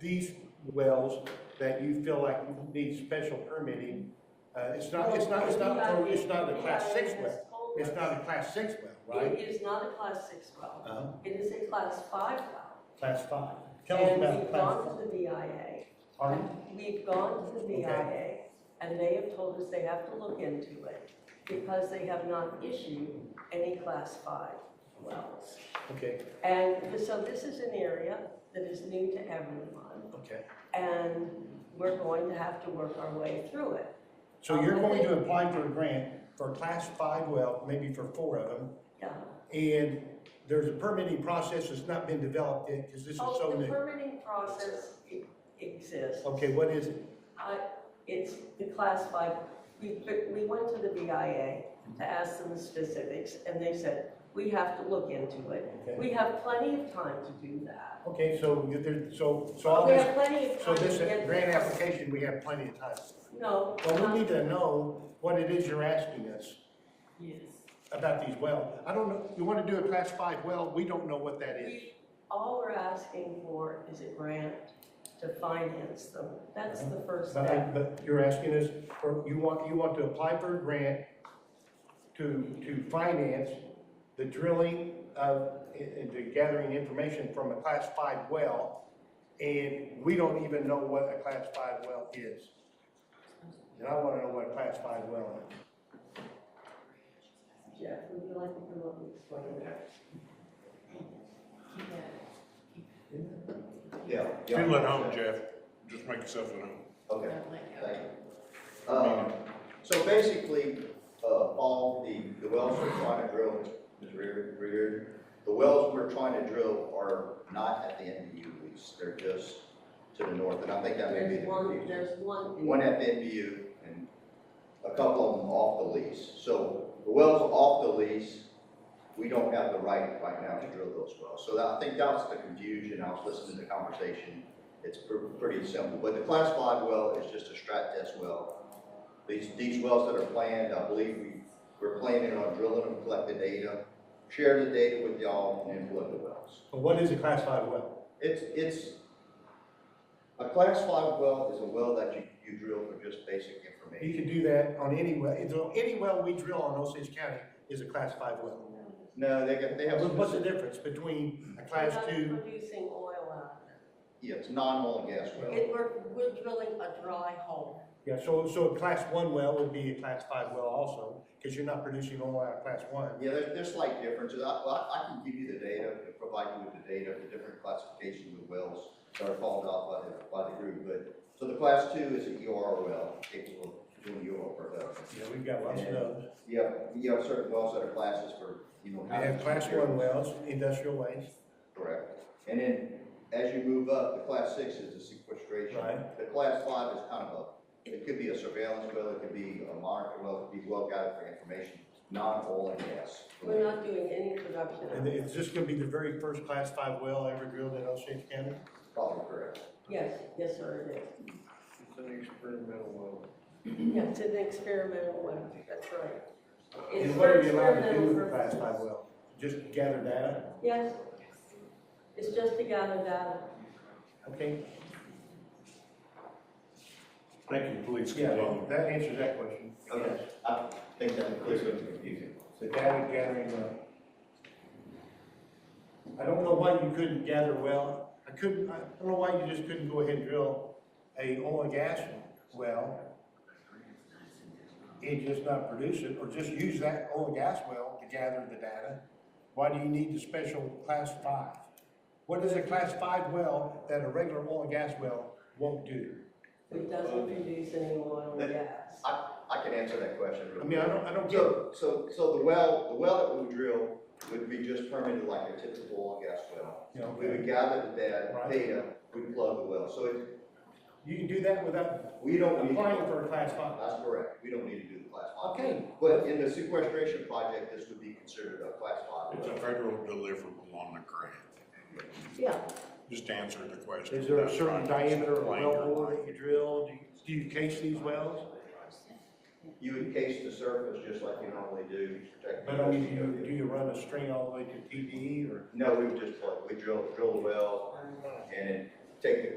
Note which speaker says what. Speaker 1: these wells that you feel like need special permitting, uh, it's not, it's not, it's not, it's not a class six well. It's not a class six well, right?
Speaker 2: It is not a class six well.
Speaker 1: Uh,
Speaker 2: It is a class five well.
Speaker 1: Class five. Tell us
Speaker 2: And
Speaker 1: about
Speaker 2: we've
Speaker 1: class
Speaker 2: gone
Speaker 1: five.
Speaker 2: to the BIA.
Speaker 1: Pardon?
Speaker 2: We've gone to the BIA, and they have told us they have to look into it because they have not issued any class five wells.
Speaker 1: Okay,
Speaker 2: And so this is an area that is new to everyone,
Speaker 1: okay.
Speaker 2: and we're going to have to work our way through it.
Speaker 1: So you're going to apply for a grant for a class five well, maybe for four of them,
Speaker 2: Yeah.
Speaker 1: and there's a permitting process that's not been developed yet, because this is so
Speaker 2: Oh, the
Speaker 1: new. uh,
Speaker 2: permitting process e- exists.
Speaker 1: Okay, what is it?
Speaker 2: I, it's the class five, we, we went to the BIA to ask them the specifics, and they said, we have to look into it.
Speaker 1: Okay.
Speaker 2: We have plenty of time to do that.
Speaker 1: Okay, so you- there, so, so all
Speaker 2: We
Speaker 1: this,
Speaker 2: have plenty of
Speaker 1: so
Speaker 2: time to
Speaker 1: this
Speaker 2: get.
Speaker 1: grant
Speaker 2: this.
Speaker 1: application, we have plenty of time.
Speaker 2: No.
Speaker 1: Well,
Speaker 2: not-
Speaker 1: we need to know what it is you're asking us
Speaker 2: Yes.
Speaker 1: about these wells. I don't know, you want to do a class five well, we don't know what that is.
Speaker 2: We, all we're asking for is a grant to finance them. That's the first
Speaker 1: But, I-
Speaker 2: step.
Speaker 1: but you're asking us, for you want, you want to apply for a grant to, to finance the drilling of, and to gathering information from a class five well, and we don't even know what a class five well is. And I want to know what a class five well is.
Speaker 2: Jeff, would you like to come up and explain that?
Speaker 3: Yeah. yeah.
Speaker 4: Feel at home, Jeff. Just make yourself at home.
Speaker 3: Okay, thank you. Um, so basically, uh, Paul, the, the wells we're trying to drill, Mr. Reardon- Reardon, the wells we're trying to drill are not at the NBU lease, they're just to the north, and I think that may be
Speaker 2: There's
Speaker 3: the
Speaker 2: one,
Speaker 3: confusion.
Speaker 2: there's one.
Speaker 3: One at the NBU and a couple of them off the lease. So the wells off the lease, we don't have the right right now to drill those wells. So that, I think that's the confusion. I was listening to the conversation. It's pr- pretty simple, but the class five well is just a strat test well. These, these wells that are planned, I believe we, we're planning on drilling them, collect the data, share the data with y'all and then flood the wells.
Speaker 1: But what is a class five well?
Speaker 3: It's, it's, a class five well is a well that you, you drill for just basic
Speaker 1: You
Speaker 3: information.
Speaker 1: can do that on any well, it's on- any well we drill on Osage County is a class five well.
Speaker 3: No, they got, they have,
Speaker 1: What's the
Speaker 3: specific-
Speaker 1: difference between a
Speaker 2: We're
Speaker 1: class
Speaker 2: not
Speaker 1: two?
Speaker 2: producing oil out of it.
Speaker 3: yeah, it's non-oil and gas well.
Speaker 2: It, we're, we're drilling a dry hole.
Speaker 1: Yeah, so, so a class one well would be a class five well also, because you're not producing oil out of class one.
Speaker 3: Yeah, there's, there's slight differences. I, well, I I can give you the data, provide you with the data, the different classifications of wells that are called out by the, by the group, but, so the class two is an EOR well, capable of doing EOR production.
Speaker 1: Yeah, we've got lots of those.
Speaker 3: You have, you have certain wells that are classes for, you know.
Speaker 1: We have
Speaker 3: housing
Speaker 1: class
Speaker 3: materials.
Speaker 1: one wells, industrial waste.
Speaker 3: Correct. And then as you move up, the class six is the sequestration.
Speaker 1: Right.
Speaker 3: The class five is kind of a, it could be a surveillance well, it could be a monitor well, it could be well guided for information, non-oil and gas.
Speaker 2: We're not doing any production. out
Speaker 1: And
Speaker 2: of it.
Speaker 1: is this gonna be the very first class five well ever drilled in Osage County?
Speaker 3: Probably correct.
Speaker 2: Yes, yes, sir, it
Speaker 5: It's an experimental well.
Speaker 2: is. Yeah, it's an experimental well, that's right. It's
Speaker 1: And what are you
Speaker 2: for
Speaker 1: allowed to do with a
Speaker 2: experimental
Speaker 1: class five
Speaker 2: purposes.
Speaker 1: well? Just gather data?
Speaker 2: Yes. It's just to gather data.
Speaker 1: Okay,
Speaker 4: Thank you, police.
Speaker 1: yeah,
Speaker 4: Continue.
Speaker 1: that answers that question.
Speaker 3: Okay, I think that clears it up confusing.
Speaker 1: The data gathering, uh, I don't know why you couldn't gather well, I couldn't, I don't know why you just couldn't go ahead and drill a oil and gas well and just not produce it, or just use that oil and gas well to gather the data. Why do you need the special class five? What is a class five well that a regular oil and gas well won't do?
Speaker 2: It doesn't produce any oil and gas.
Speaker 3: I, I can answer that question. real
Speaker 1: I mean, I don't, I don't
Speaker 3: quick.
Speaker 1: get,
Speaker 3: So, so, so the well, the well that we would drill would be just permitted like a typical oil and gas well.
Speaker 1: you know,
Speaker 3: We would gather the
Speaker 1: Right.
Speaker 3: data, data, we plug the well, so it,
Speaker 1: you can do that without
Speaker 3: we don't need.
Speaker 1: applying for a class five.
Speaker 3: That's correct, we don't need to do the class five.
Speaker 1: Okay.
Speaker 3: But in the sequestration project, this would be considered a class five.
Speaker 4: It's a federal deliverable on the grant.
Speaker 2: Yeah,
Speaker 4: Just answer the question.
Speaker 1: Is there a
Speaker 4: That's
Speaker 1: certain
Speaker 4: right.
Speaker 1: diameter of
Speaker 4: Explain
Speaker 1: well
Speaker 4: your
Speaker 1: bore
Speaker 4: line.
Speaker 1: that you drill? Do you- Do you case these wells?
Speaker 3: You encase the surface just like you normally do, protect. the-
Speaker 1: But I mean, do you, do you run a string all the way to TDE or?
Speaker 3: No, we would just, plug- we drill, drill the well and then take the